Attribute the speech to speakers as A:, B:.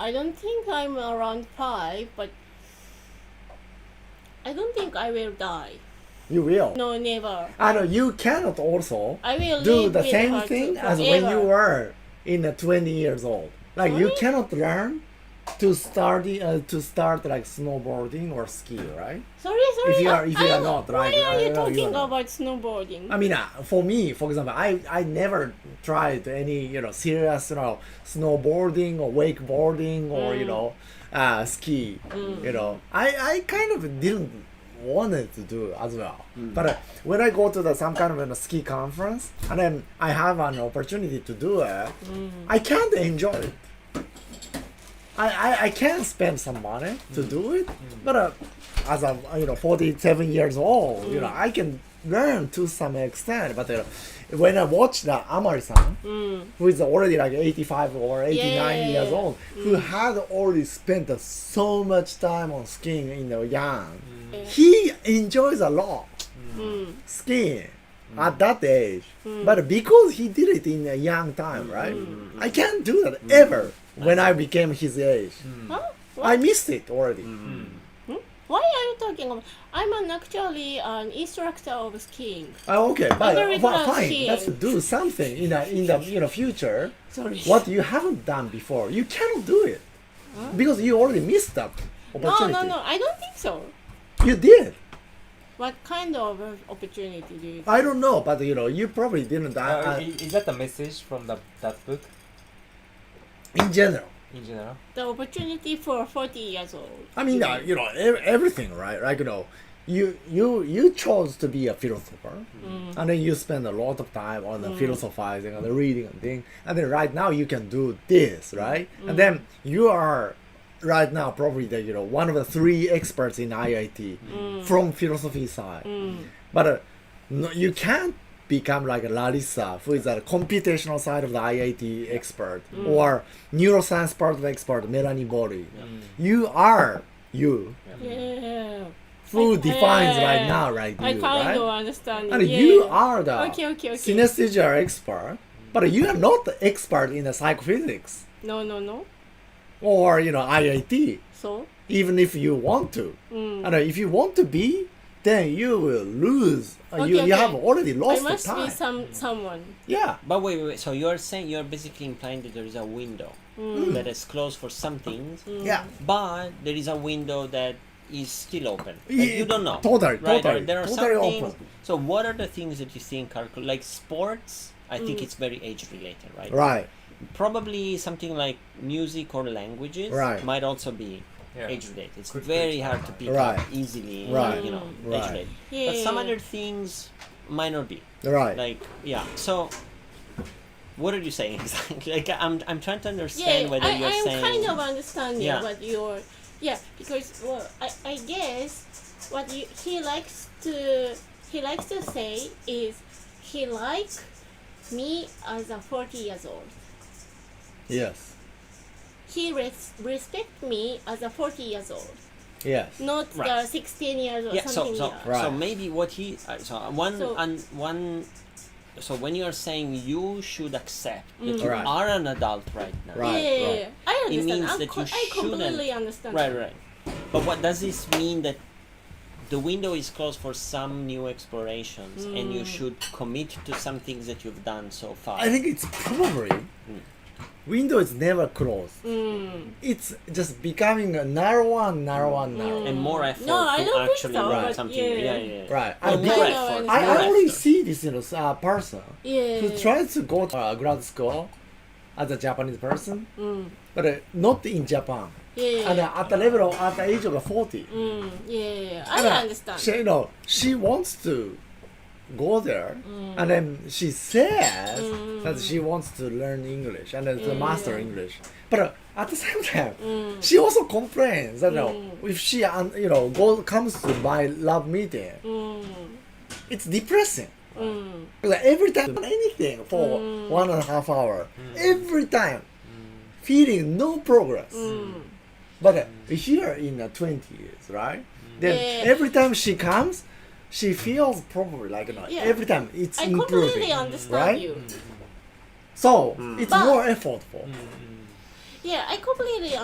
A: I don't think I'm around five, but I don't think I will die.
B: You will.
A: No, never.
B: I know you cannot also
A: I will
B: do
A: live
B: the
A: with
B: same
A: her
B: thing
A: to
B: as when you
A: forever.
B: were in the 20 years old. Like you
A: Really?
B: cannot learn to study uh, to start like snowboarding or ski, right?
A: Sorry, sorry.
B: you are- if you
A: I-
B: are not, right,
A: Why are you
B: I know you
A: talking
B: are not.
A: about snowboarding?
B: I mean, uh, for me, for example, I I never tried any you know serious you know snowboarding or wakeboarding or you know uh, ski. You know, I I kind of didn't wanted to do as well. But uh, when I go to the some kind of a ski conference and then I have an opportunity to do it, I can't enjoy it. I, I, I can spend some money
A: Mm.
B: to do it, but uh, as I'm uh, you know 47 years old, you
A: Mm.
B: know I can learn to some extent. But uh, when I watch the Amari-san, who is already like 85 or
A: Mm.
B: 89
A: yeah,
B: years
A: yeah. Mm.
B: old, who had already spent uh, so much time on skiing in the young,
A: Mm.
B: he enjoys a lot skiing
A: Mm.
B: at that age. But because he did it in a young time,
A: Mm.
B: right? I can't do that ever when I became his age.
A: Huh? What?
B: I missed it already.
A: Why are you talking about? I'm an, actually an instructor of skiing.
B: Oh, okay, but
A: very
B: well,
A: good
B: fine.
A: skiing.
B: Let's do something in the in the you know future.
A: Sorry.
B: What you haven't done before, you cannot do it because you already missed that
A: No,
B: opportunity.
A: no, no. I don't think so.
B: You did.
A: What kind of opportunity do you?
B: I don't know, but you know, you probably didn't. I,
C: Uh,
B: I,
C: i- is that a message from the, that book
B: in general,
C: in general?
A: The opportunity for 40 years old.
B: I mean, uh, you know, ev- everything, right? Like you know, you you you chose to be a philosopher, and then you spend a lot of time on the philosophizing and the reading and thing, and then right now you can do this, right? And then you are right now probably the you know one of the three experts in IIT from philosophy side, but uh, no, you can't become like Larissa, who is a computational side of the IIT expert,
A: Mm.
B: or neuroscience part of expert Melanie Bori. You are you
A: Yeah.
B: who
A: I-
B: defines
A: yeah.
B: right now, right?
A: I
B: you,
A: kind
B: right?
A: of understand.
B: And
A: yeah.
B: you are the
A: Okay, okay, okay.
B: synesthesia expert, but you are not the expert in the psychophysics
A: No, no, no.
B: or you know IIT.
A: So
B: Even if you want to,
A: Mm.
B: and uh, if you want to be, then you will lose. Uh, you,
A: Okay,
B: you
A: okay.
B: have already
A: I
B: lost the
A: must be
B: time.
A: some someone.
B: yeah.
D: But wait, wait, wait. So you're saying you're basically implying that there is a window that is closed for some things,
B: Yeah.
D: but there is a window that is still open.
B: Yeah,
D: Like, you don't know.
B: totally,
D: Right?
B: totally,
D: there, there are
B: totally
D: some things.
B: open.
D: So what are the things that you think are cl- like sports? I
A: Mm.
D: think it's very age related, right?
B: Right.
D: Probably something like music or languages
B: Right.
D: might also be
C: Yeah.
D: age related. It's
C: Quick
D: very
C: reach.
D: hard to pick
B: Right.
D: up easily,
B: Right.
D: you know,
B: Right.
D: age related.
A: Yeah.
D: But some other things might not be
B: Right.
D: like yeah so what are you saying exactly like i'm, I'm trying to understand
A: yeah,
D: whether
A: I,
D: you're
A: I'm
D: saying
A: kind of understanding
D: Yeah.
A: what you're. Yeah, because well, I, I guess what you, he likes to he likes to say is he like me as a 40 years old.
B: yes.
A: He res- respect me as a 40 years old,
B: Yes.
A: not the
D: Right.
A: 16 years or
D: yeah so
A: something.
D: so,
A: else.
B: Right.
D: so maybe what he uh, so one
A: So-
D: and one so when you're saying you should accept that
A: Mm.
D: you
B: Right.
D: are an adult right now
B: Right,
A: yeah, yeah,
B: right.
A: yeah. I understand.
D: means
A: I'm
D: that
A: co-
D: you
A: I completely
D: shouldn't-
A: understand.
D: right right but what does this mean that the window is closed for some new explorations and
A: Mm.
D: you should commit to some things that you've done so far
B: I think it's probably
D: Mm.
B: window is never closed.
A: Mm,
B: It's just becoming a narrower and narrower and narrower.
D: Mm. and more effort
A: Mm. No, I
D: to
A: don't think
D: actually
A: so,
D: learn
A: but
D: something
A: yeah.
D: yeah yeah, yeah.
B: Right.
D: Or
B: I,
A: Well,
D: more
A: no,
B: did,
A: no,
D: effort
B: I
D: more
B: already
D: effort.
B: see this you know, s- uh, person
A: Yeah.
D: Mm.
B: who tries to go to uh, grad school as a Japanese person,
D: Mm.
B: but uh, not in Japan.
A: Yeah.
B: And uh, at the level of, at the age of 40.
A: Mm, yeah, yeah, yeah. I
B: And, uh,
A: understand.
B: She, you know, she wants to go there,
A: Mm.
B: and then she says that she wants to learn English and then
A: Mm.
B: to master English. But uh, at the same time, she also complains that you know,
A: Mm.
B: if she um, you know go, comes to my love meeting,
A: Mm,
B: it's depressing. Like every time anything for
A: Mm.
B: one and a half hour, every time feeling no progress.
A: Mm.
B: But uh, here in the twenties, right? Then
A: Yeah.
B: every time she comes, she feels probably like you know,
A: Yeah.
B: every time it's
A: I
B: improving,
A: completely understand
B: right?
A: you.
B: So it's
A: But-
B: more effortful.
A: Yeah, I completely